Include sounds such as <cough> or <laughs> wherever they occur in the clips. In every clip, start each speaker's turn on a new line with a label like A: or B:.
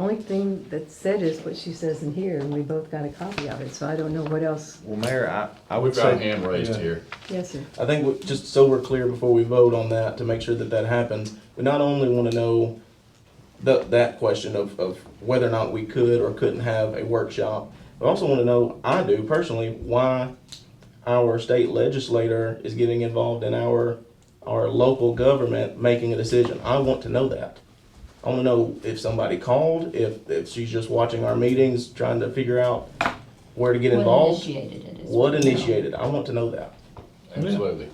A: only thing that's said is what she says in here, and we both got a copy of it, so I don't know what else.
B: Well, Mayor, I, I would
C: We've got a
B: say,
C: hand raised here.
A: Yes, sir.
D: I think we- just so we're clear before we vote on that, to make sure that that happens, we not only want to know the, that question of, of whether or not we could or couldn't have a workshop, but also want to know, I do personally, why our state legislator is getting involved in our, our local government making a decision. I want to know that. I want to know if somebody called, if, if she's just watching our meetings, trying to figure out where to get
E: What
D: involved.
E: initiated it? is
D: What
E: you know.
D: initiated? I want to know that.
C: Absolutely.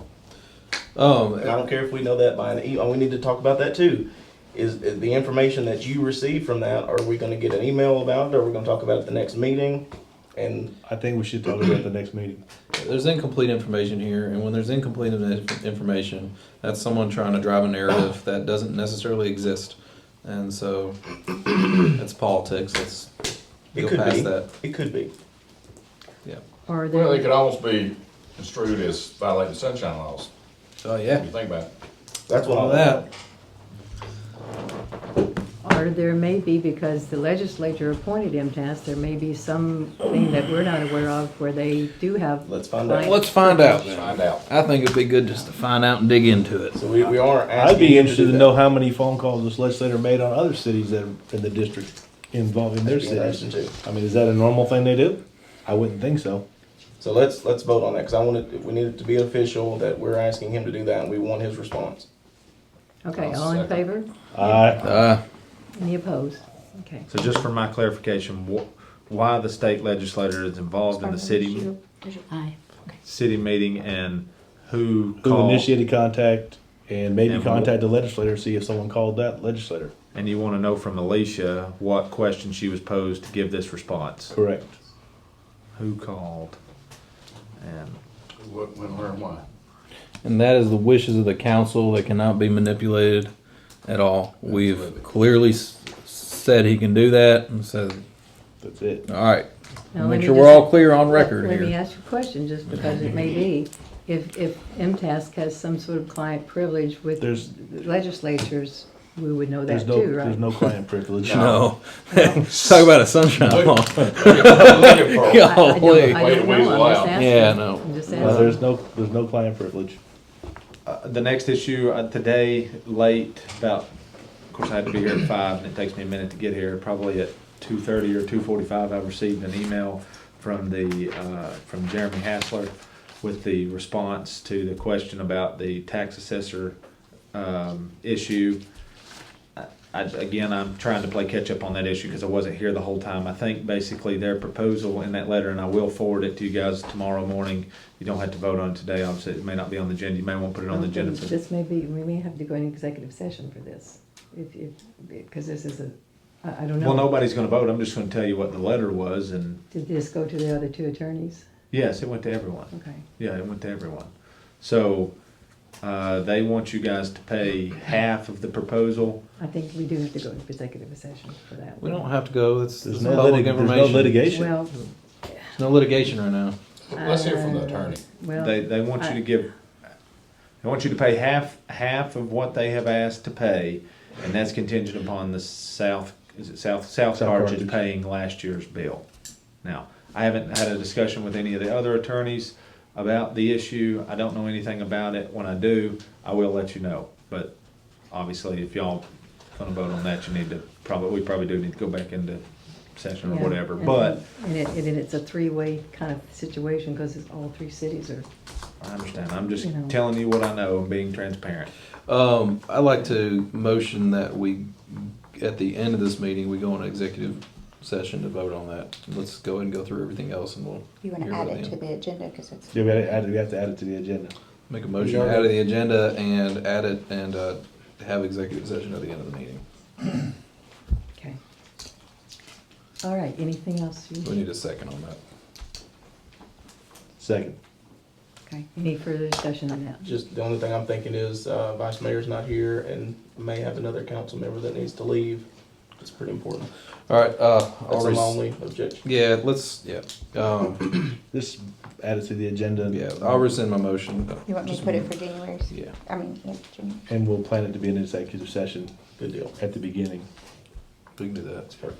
F: Um,
D: And I don't care if we know that by an email. We need to talk about that too. Is, is the information that you receive from that, are we gonna get an email about it? Are we gonna talk about it at the next meeting? And
G: I think we should talk about it at the next meeting.
F: there's incomplete information here, and when there's incomplete in- information, that's someone trying to drive a narrative that doesn't necessarily exist, and so that's politics. Let's
D: it
F: go
D: could
F: past
D: be,
F: that.
D: it could be.
F: Yeah.
A: Or
C: Well, they
A: there,
C: could almost be construed as violating sunshine laws,
F: Oh
C: if
F: yeah.
C: you think about it.
D: That's what
F: All
D: I,
F: that.
A: or there may be, because the legislature appointed MTS, there may be something that we're not aware of where they do have.
D: let's find out.
F: Let's find out. Then.
C: Find out.
F: I think it'd be good just to find out and dig into it.
D: so we, we are asking.
G: I'd be
D: you do
G: interested to
D: that.
G: know how many phone calls this legislator made on other cities that are in the district involving their
D: That'd be interesting,
G: cities.
D: too.
G: I mean, is that a normal thing they do? I wouldn't think so.
D: So let's, let's vote on that, cause I want it, we need it to be official that we're asking him to do that and we want his response.
A: Okay,
C: I'll
A: all in
C: second.
A: favor?
G: I,
F: Uh,
A: Any opposed? Okay.
B: so just for my clarification, wh- why the state legislator is involved in the city,
E: Aye.
B: city meeting and who
G: who
B: called?
G: initiated contact and maybe
B: And-
G: contact the legislator, see if someone called that legislator.
B: And you want to know from Alicia what question she was posed to give this response.
G: Correct.
B: Who called? And
C: What, when, where, and why?
F: and that is the wishes of the council that cannot be manipulated at all. We've
C: Absolutely.
F: clearly s- said he can do that, and so
G: That's it.
F: all right.
A: Now, let
F: Make
A: me
F: sure we're
A: just-
F: all clear on record
A: Let- Let me
F: here.
A: ask you a question, just because it may be, if, if MTS has some sort of client privilege with
G: There's-
A: legislatures, we would know
G: There's
A: that
G: no,
A: too, right?
G: there's no client
F: <laughs>
G: privilege. Uh,
F: No. Talk about a sunshine law. <laughs>
A: I- I don't-
F: Golly.
A: I
C: Way to
A: don't
C: weasel
A: know, I'm just
C: out.
A: asking.
F: Oh, Yeah, no.
A: I'm just
G: No,
A: asking.
G: there's no, there's no client privilege.
B: Uh, the next issue uh, today, late, about, of course, I had to be here at five, and it takes me a minute to get here. Probably at two thirty or two forty-five, I received an email from the, uh, from Jeremy Hassler with the response to the question about the tax assessor, um, issue. I- I, again, I'm trying to play catch up on that issue because I wasn't here the whole time. I think basically their proposal in that letter, and I will forward it to you guys tomorrow morning. You don't have to vote on it today. Obviously, it may not be on the agenda. You may want to put it on the agenda. for-
A: This may be, we may have to go into executive session for this, if, if, because this is a, I, I don't know.
B: Well, nobody's going to vote. I'm just going to tell you what the letter was, and
A: Did this go to the other two attorneys?
B: yes, it went to everyone.
A: Okay.
B: Yeah, it went to everyone. So uh, they want you guys to pay half of the proposal.
A: I think we do have to go into executive session for that.
F: We don't have to go. It's,
G: There's
F: it's
G: no
F: public
G: litig, there's no
F: information.
G: litigation.
A: Well,
F: There's no litigation right now.
C: Let's hear from the attorney.
A: well.
B: They they want you to give. They want you to pay half half of what they have asked to pay, and that's contingent upon the South is it South South,
G: South
B: Carthage
G: Carthage.
B: paying last year's bill. Now I haven't had a discussion with any of the other attorneys about the issue. I don't know anything about it. When I do, I will let you know. But obviously, if y'all gonna vote on that, you need to probably we probably do need to go back into session or
A: Yeah,
B: whatever.
A: and-
B: But
A: And it, and it- it's a three-way kind of situation, because it's all three cities are,
B: I understand. I'm just
A: You know.
B: telling you what I know and being transparent.
F: Um, I'd like to motion that we, at the end of this meeting, we go on an executive session to vote on that. Let's go ahead and go through everything else and we'll.
E: You want
F: hear
E: to add
F: about
E: it
F: the
E: to
F: end.
E: the agenda because it's.
G: Yeah, we had to add it- we have to add it to the agenda.
F: Make a motion out of the agenda and add it and, uh, have executive session at the end of the meeting.
A: okay. All right, anything else? you-
F: We need a second on that.
G: Second.
A: Okay, any further discussion on that?
D: Just the only thing I'm thinking is, uh, vice mayor's not here and may have another council member that needs to leave. It's pretty important.
F: All right, uh,
D: That's
F: I'll
D: my
F: res-
D: only objection.
F: yeah, let's, yeah, um,
G: This added to the agenda.
F: yeah, I'll rescind my motion.
E: You want me to
F: Just-
E: put it for January?
F: Yeah.
E: I mean, yeah, January.
G: And we'll plan it to be an executive session
D: Good deal.
G: at the beginning.
F: We can do that.